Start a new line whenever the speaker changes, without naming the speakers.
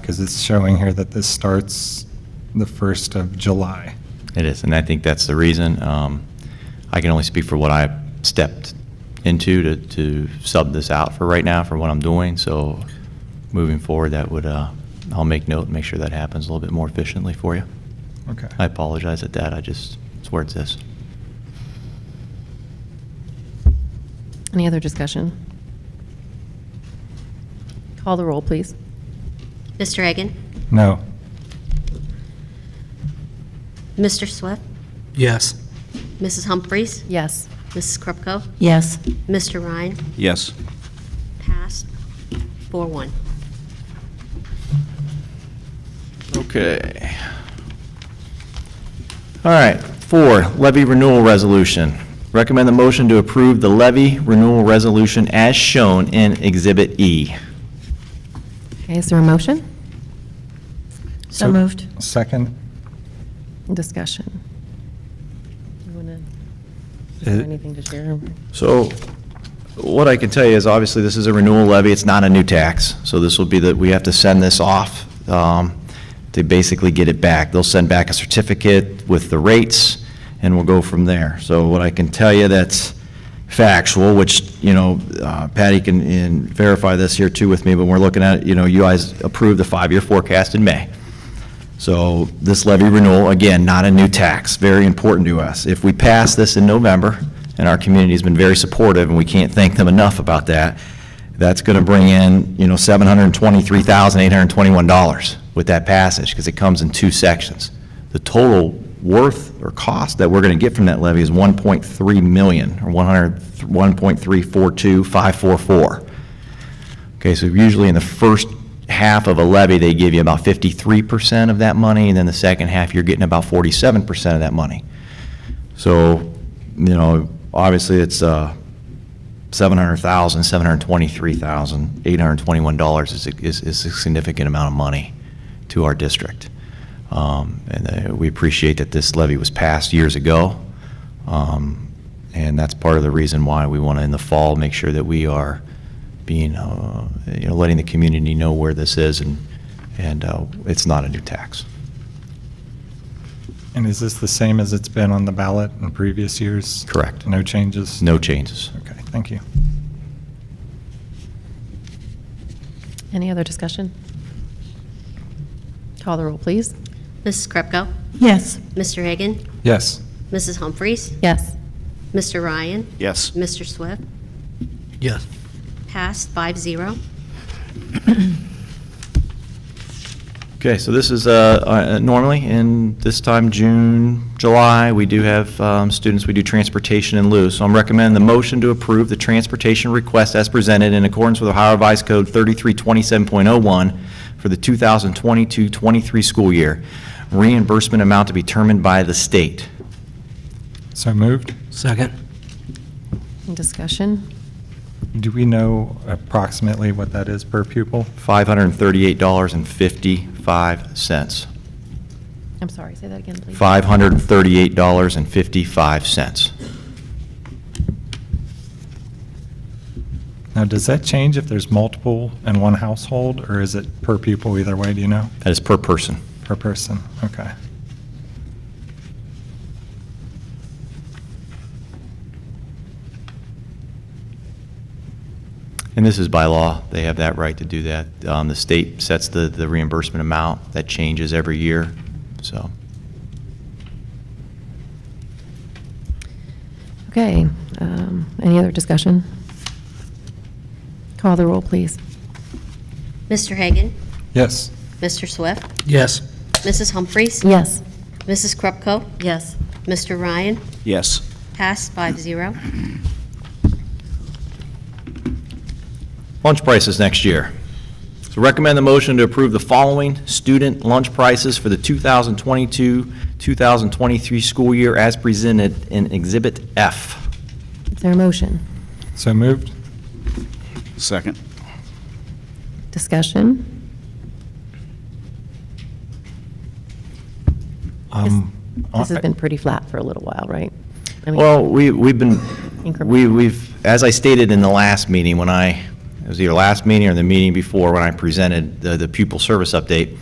because it's showing here that this starts the 1st of July.
It is, and I think that's the reason. Um, I can only speak for what I stepped into to, to sub this out for right now for what I'm doing. So moving forward, that would, uh, I'll make note, and make sure that happens a little bit more efficiently for you.
Okay.
I apologize at that. I just, it's where it's this.
Any other discussion? Call the roll, please.
Mr. Egan?
No.
Mr. Swift?
Yes.
Mrs. Humphries?
Yes.
Mrs. Krupko?
Yes.
Mr. Ryan?
Yes.
Passed. 4-1.
Okay. All right, four, levy renewal resolution. Recommend the motion to approve the levy renewal resolution as shown in Exhibit E.
Okay, is there a motion?
So moved.
Second?
Discussion? You want to,
Uh,
anything to share?
So what I can tell you is, obviously, this is a renewal levy, it's not a new tax. So this will be that, we have to send this off um, to basically get it back. They'll send back a certificate with the rates, and we'll go from there. So what I can tell you that's factual, which, you know, uh, Patty can in- verify this here too with me, but we're looking at, you know, you guys approved the five-year forecast in May. So this levy renewal, again, not a new tax, very important to us. If we pass this in November, and our community's been very supportive, and we can't thank them enough about that, that's going to bring in, you know, $723,821 with that passage, because it comes in two sections. The total worth or cost that we're going to get from that levy is 1.3 million, or 100 1.342544. Okay, so usually in the first half of a levy, they give you about fifty-three percent of that money, and then the second half, you're getting about forty-seven percent of that money. So, you know, obviously, it's uh, seven hundred thousand, seven hundred twenty-three thousand, eight hundred twenty-one dollars is, a- is is a significant amount of money to our district. Um, And uh, we appreciate that this levy was passed years ago. Um, And that's part of the reason why we want to, in the fall, make sure that we are being, uh, you know, letting the community know where this is and, and uh, it's not a new tax.
And is this the same as it's been on the ballot in previous years?
Correct.
No changes?
No changes.
Okay, thank you.
Any other discussion? Call the roll, please.
Mrs. Krupko?
Yes.
Mr. Egan?
Yes.
Mrs. Humphries?
Yes.
Mr. Ryan?
Yes.
Mr. Swift?
Yes.
Passed. 5-0.
Okay, so this is, uh, uh, normally in this time, June, July, we do have um, students, we do transportation in lieu. So I'm recommending the motion to approve the transportation request as presented in accordance with Ohio Revised Code 3327.01 for the 2022-23 school year. Reimbursement amount to be determined by the state.
So moved.
Second.
Discussion?
Do we know approximately what that is per pupil?
$538.55.
I'm sorry, say that again, please.
$538.55.
Now, does that change if there's multiple in one household, or is it per pupil either way, do you know?
That is per person.
Per person, okay.
And this is by law, they have that right to do that. Um, The state sets the the reimbursement amount, that changes every year, so.
Okay, um, any other discussion? Call the roll, please.
Mr. Hagan?
Yes.
Mr. Swift?
Yes.
Mrs. Humphries?
Yes.
Mrs. Krupko?
Yes.
Mr. Ryan?
Yes.
Passed. 5-0.
Lunch prices next year. So recommend the motion to approve the following student lunch prices for the 2022-2023 school year as presented in Exhibit F.
Is there a motion?
So moved?
Second.
Discussion?
Um,
This has
I-
been pretty flat for a little while, right? I mean,
Well, we, we've been,
Increment.
we, we've, as I stated in the last meeting, when I it was either last meeting or the meeting before when I presented the the pupil service update,